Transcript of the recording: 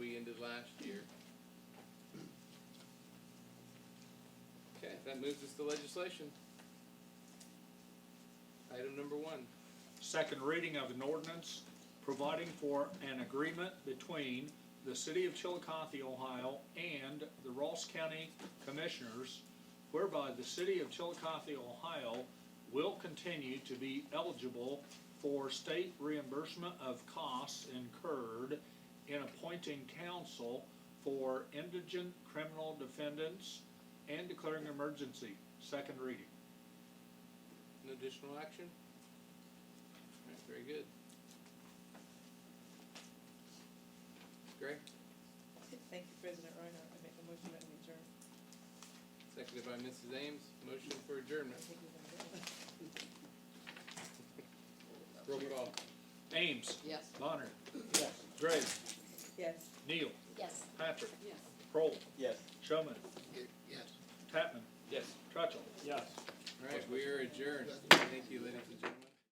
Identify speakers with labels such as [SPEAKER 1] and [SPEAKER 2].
[SPEAKER 1] right, that moves us to legislation. Item number one.
[SPEAKER 2] Second reading of an ordinance providing for an agreement between the City of Chillicothe, Ohio and the Ross County Commissioners whereby the City of Chillicothe, Ohio will continue to be eligible for state reimbursement of costs incurred in appointing counsel for indigent criminal defendants and declaring emergency. Second reading.
[SPEAKER 1] No additional action? All right, very good. Gray,
[SPEAKER 3] Thank you, President Reinhardt. I make a motion that we adjourn.
[SPEAKER 1] seconded by Mrs. Ames, motion for adjournment. Roll call.
[SPEAKER 2] Ames.
[SPEAKER 4] Yes.
[SPEAKER 2] Bonner. Gray.
[SPEAKER 3] Yes.
[SPEAKER 2] Neal.
[SPEAKER 4] Yes.
[SPEAKER 2] Patrick.
[SPEAKER 4] Yes.
[SPEAKER 2] Prohl.
[SPEAKER 5] Yes.
[SPEAKER 2] Showman.
[SPEAKER 5] Yes.
[SPEAKER 2] Tatman.
[SPEAKER 1] Yes.
[SPEAKER 2] Trutchell.
[SPEAKER 5] Yes.
[SPEAKER 1] All right, we are adjourned. Thank you, ladies and gentlemen.